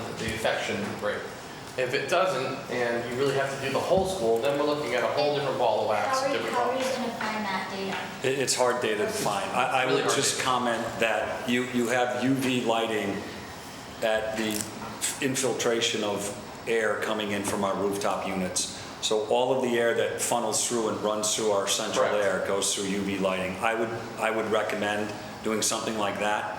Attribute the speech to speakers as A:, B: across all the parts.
A: infection rate. If it doesn't, and you really have to do the whole school, then we're looking at a whole different ball of wax.
B: How are,
A: different
B: how are
A: ball.
B: you gonna find that data?
C: It, it's hard data to find. I, I
A: Really
C: would
A: hard
C: just
A: data.
C: comment that you, you have UV lighting at the infiltration of air coming in from our rooftop units. So all of the air that funnels through and runs through our central
A: Correct.
C: air goes through UV lighting. I would, I would recommend doing something like that.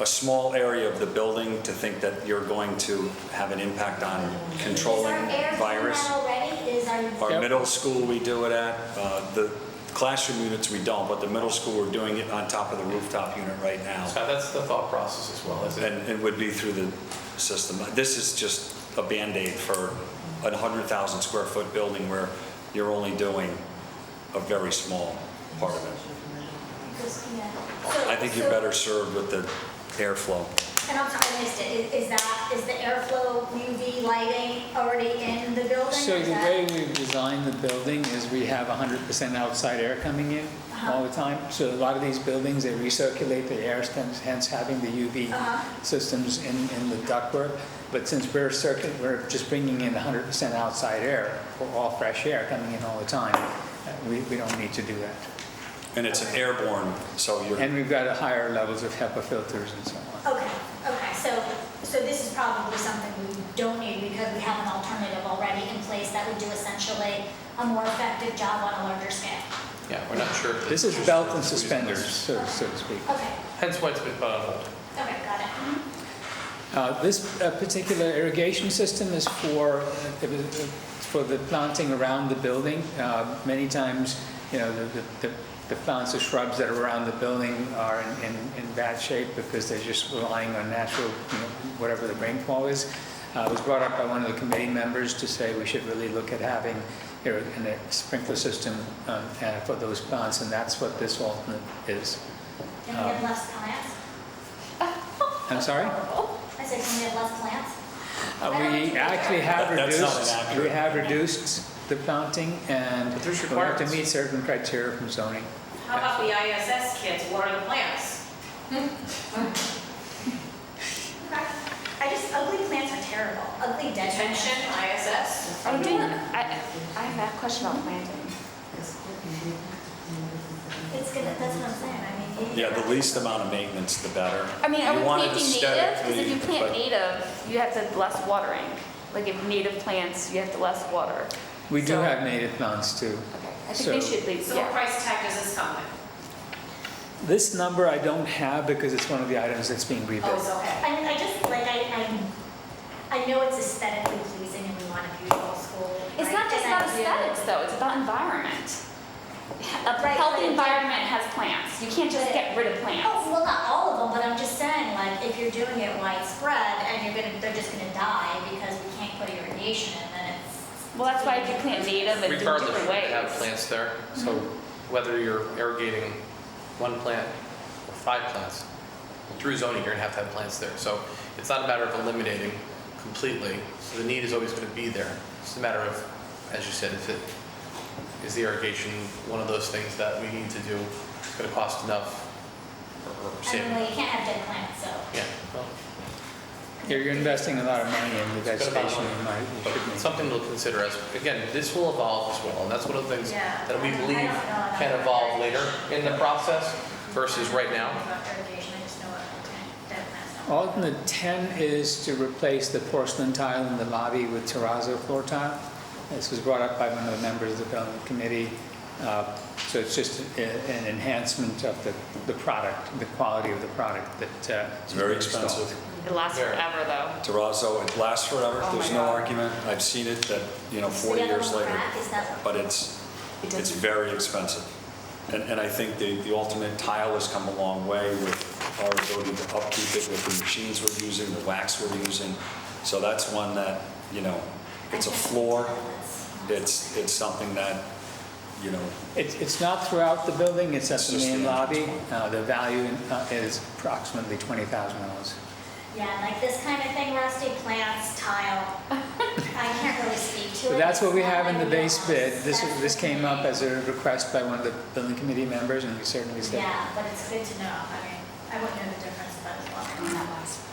C: A small area of the building to think that you're going to have an impact on controlling
B: Is our air doing
C: virus.
B: that already? Is our,
C: Our
A: Yep.
C: middle school, we do it at. Uh, The classroom units, we don't, but the middle school, we're doing it on top of the rooftop unit right now.
A: Scott, that's the thought process as well, is it?
C: And it would be through the system. This is just a Band-Aid for a 100,000 square foot building where you're only doing a very small part of it.
B: because, yeah.
C: I think you're better served with the airflow.
B: And I'm sorry, I missed it. Is is that, is the airflow UV lighting already in the building?
D: So
B: Is
D: the
B: that-
D: way we've designed the building is we have 100% outside air coming in
B: Uh-huh.
D: all the time. So a lot of these buildings, they recirculate the air, hence- hence having the UV
B: Uh-huh.
D: systems in, in the ductwork. But since we're circuit, we're just bringing in 100% outside air, or all fresh air coming in all the time, uh, we, we don't need to do that.
C: And it's an airborne, so you're,
D: And we've got a higher levels of HEPA filters and so on.
B: Okay, okay, so, so this is probably something we don't need because we have an alternative already in place that would do essentially a more effective job on a larger scale.
A: Yeah, we're not sure. if it's
D: This is
A: just-
D: belt and suspenders, so so to speak.
B: Okay,
A: Hence why it's been put on hold.
B: okay, got it. Mhm.
C: Mm-hmm.
D: Uh, This uh, particular irrigation system is for, uh, it was, uh, for the planting around the building. Uh, Many times, you know, the- the- the the plants or shrubs that are around the building are in- in in bad shape because they're just relying on natural, you know, whatever the rainfall is. Uh, It was brought up by one of the committee members to say we should really look at having you know, an- a sprinkler system um, uh, for those plants, and that's what this alternate is.
B: Can we have less plants?
D: I'm sorry?
B: I said, can we have less plants?
D: Uh, We actually have
C: That- that's not
D: reduced, we
C: inaccurate.
D: have reduced the planting and
A: But
D: we
A: there's
D: have to
A: requirements.
D: meet certain criteria from zoning.
E: How about the ISS kids water the plants?
B: Okay. I just, ugly plants are terrible, ugly dead plants.
E: Attention, ISS.
F: I'm doing, I, I have a question about planting.
B: It's gonna, that's what I'm saying, I mean.
C: yeah, the least amount of maintenance, the better.
F: I mean, are
C: You
F: we
C: want it
F: planting native? Because if you
C: aesthetically,
F: plant
C: but-
F: native, you have to less watering. Like if native plants, you have to less water.
D: We do
F: So-
D: have native plants too.
F: Okay, I think they
D: So-
F: should leave,
E: So what
F: yeah.
E: price tag does this come with?
D: This number I don't have because it's one of the items that's being
E: Oh, it's
D: rebuilt.
E: okay.
B: I, I just, like, I, I, I know it's aesthetically pleasing and we want a beautiful school.
F: It's
B: right?
F: not just
B: And
F: about
B: I do-
F: aesthetics though, it's about environment. A
B: Right,
F: healthy
B: right.
F: environment has plants. You can't just
B: But-
F: get rid of plants.
B: Oh, well, not all of them, but I'm just saying, like, if you're doing it widespread and you're gonna, they're just gonna die because we can't put irrigation in, then it's.
F: Well, that's why if you plant native and do it
A: Regardless,
F: different
A: we have
F: ways.
A: plants there, so whether you're irrigating one plant or five plants, through zoning, you're gonna have to have plants there. So it's not a matter of eliminating completely, so the need is always gonna be there. It's a matter of, as you said, is it, is the irrigation one of those things that we need to do? It's gonna cost enough or- or
B: I
A: save?
B: mean, well, you can't have dead plants, so.
A: Yeah, well,
D: You're you're investing a lot of money in the
A: It's got a lot of
D: vegetation.
A: money.
D: you might- you
A: but
D: should make-
A: something to consider as, again, this will evolve as well, and that's one of the things
B: Yeah.
A: that we
B: I don't
A: believe
B: know about
A: can
B: that.
A: evolve later in the process versus right now.
B: About irrigation, I just know what dead plants don't.
D: Alternate 10 is to replace the porcelain tile in the lobby with terrazzo floor tile. This was brought up by one of the members of the building committee. Uh, So it's just a- an enhancement of the, the product, the quality of the product that. uh,
C: It's very
D: is installed.
C: expensive.
F: It lasts
A: There.
F: forever though.
C: terrazzo, it lasts forever,
F: Oh my
C: there's no
F: God.
C: argument. I've seen it that, you know,
B: It's
C: 40
B: the other
C: years
B: one
C: later.
B: crack, is that-
C: But it's,
F: It
C: it's
F: doesn't-
C: very expensive. And, and I think the, the ultimate tile has come a long way with our ability to upkeep it with the machines we're using, the wax we're using. So that's one that, you know, it's a floor, it's, it's something that, you know,
D: It's, it's not throughout the building, it's at
C: It's
D: the
C: just
D: main
C: the
D: lobby.
C: entrance
D: Uh, The value uh, is approximately $20,000.
B: Yeah, like this kind of thing, rusty plants, tile. I can't really speak to it.
D: So that's what we
B: It's
D: have
B: not
D: in the
B: my
D: base bid.
B: wheelhouse.
D: This,
B: That's
D: this
B: the
D: came up
B: thing.
D: as a request by one of the building committee members, and we certainly said.
B: Yeah, but it's good to know. I mean, I wouldn't know the difference, but it's welcome.